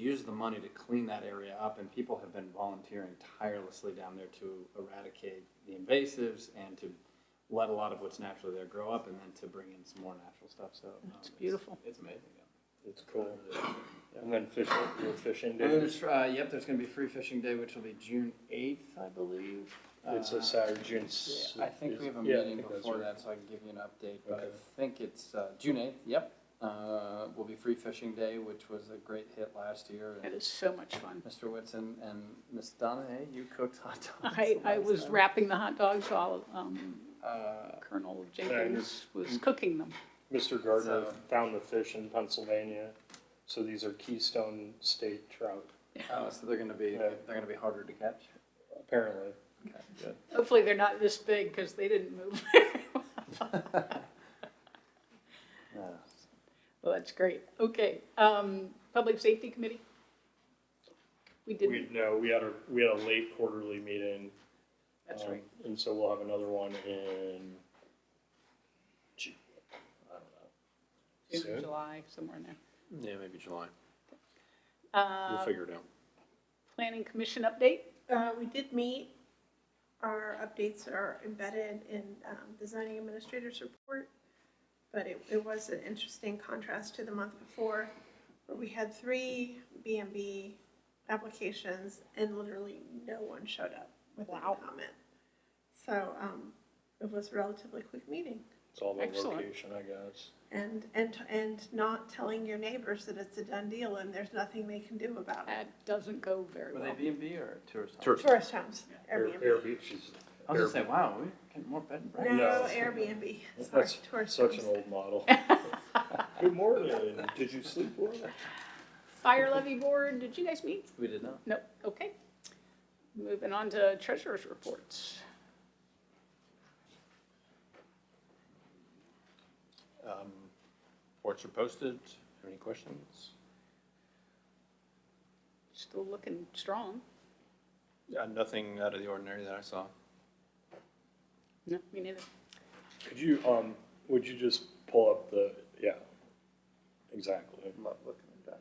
use the money to clean that area up, and people have been volunteering tirelessly down there to eradicate the invasives and to let a lot of what's naturally there grow up, and then to bring in some more natural stuff, so. um, It's beautiful. It's amazing, yeah. It's cool. And then fishing, you're fishing And then day. there's, uh, yep, there's gonna be free fishing day, which will be June eighth, I believe. It's Uh, a Saturday. Yeah, I think we have a meeting before that, so I can give you an update, but Okay. I think it's, uh, June eighth, yep. Uh, will be free fishing day, which was a great hit last year, It and is so much fun. Mr. Whitson and Miss Donna, hey, you cooked hot dogs. I, the I last was time. wrapping the hot dogs while um, Uh, Colonel Jenkins was cooking them. Mr. Gardner So- found the fish in Pennsylvania, so these are Keystone State trout, oh, so they're gonna be, Yeah. they're gonna be harder to catch. apparently. Hopefully, they're not this big because they didn't move. Well, that's great. Okay, um, Public Safety Committee? We We, didn't, no, we had a, we had a late quarterly meeting. that's um, right. And so we'll have another one in, Ju- I don't know. June, Soon? July, somewhere in there. Yeah, maybe July. We'll Um, Uh, figure it out. Planning Commission update? Uh, we did meet, our updates are embedded in, um, the zoning administrator's report, but it, it was an interesting contrast to the month before, where we had three B and B applications and literally no one showed up with any Wow. comment. So, um, it was a relatively quick meeting, It's all about Excellent. location, I guess. and, and, and not telling your neighbors that it's a done deal and there's nothing they can do about it. That doesn't go very Were well. they B and B or tourist? homes? Tourist. Tourist homes, Air- Airbnb. Airbnb, she's- I was gonna say, wow, we're getting more bed and breakfast. No, No. Airbnb, sorry, That's tourist such an homes. old model. Good morning, did you sleep well? Fire Levy Board, did you guys meet? We did not. Nope, okay. Moving on to treasurer's reports. Um, Reports are posted. Have Any questions? Still looking strong. Yeah, Nothing out of the ordinary that I saw. No, me neither. Could you, um, would you just pull up the, yeah, exactly. I'm not looking at that.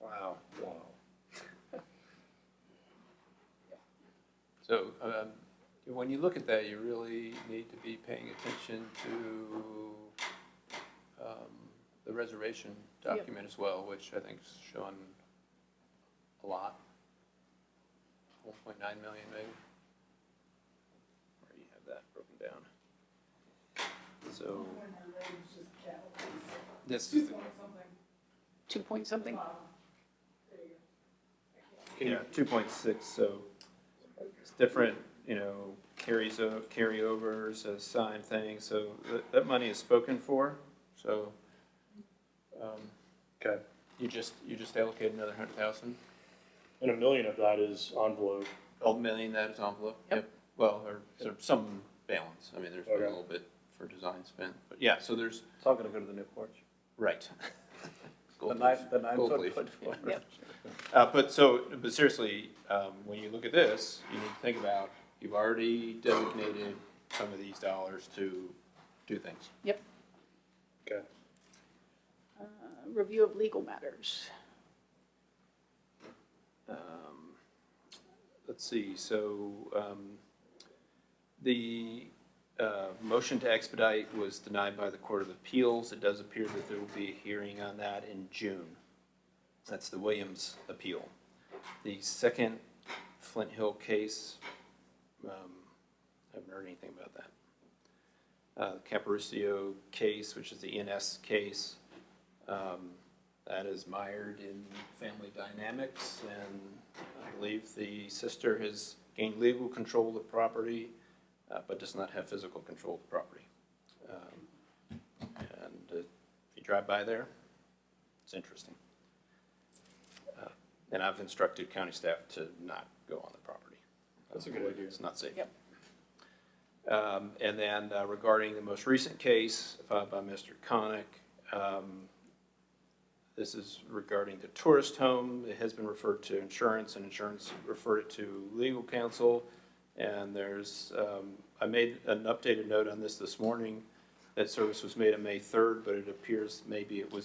Wow. Wow. So um, when you look at that, you really need to be paying attention to um, the reservation Yep. document as well, which I think's shown a lot. 1.9 million maybe. Where do you have that broken down? So. This is, the- Two point something? Yeah, two point six, so it's different, you know, carries, o- carryovers, assigned things, so that, that money is spoken for, so. um, Okay. You just, you just allocate another hundred thousand, And a million of that is envelope. a million that is envelope, Yep. yep, well, or sort of some balance, I mean, there's been a Okay. little bit for design spent, but yeah, so there's, It's all gonna go to the new porch. right. The Gold nine, leaf. the nine Gold foot leaf. put Yep. Uh, but so, but seriously, um, when you look at this, you need to think about, you've already designated some of these dollars to do things. Yep. Okay. Uh, Review of legal matters. Um, Let's see, so, um, the, uh, motion to expedite was denied by the Court of Appeals. It does appear that there will be a hearing on that in June. That's the Williams appeal. The second Flint Hill case, um, I haven't heard anything about that. Uh, Caparucio case, which is the ENS case, um, that is mired in family dynamics, and I believe the sister has gained legal control of the property, uh, but does not have physical control of the property. Um, And uh, if you drive by there, it's interesting. Uh, And I've instructed county staff to not go on the property. That's a good idea. It's not safe. Yep. Um, And then uh, regarding the most recent case filed by Mr. Conick, um, this is regarding the tourist home. It has been referred to insurance, and insurance referred it to legal counsel. And there's, um, I made an updated note on this this morning. That service was made on May 3rd, but it appears maybe it was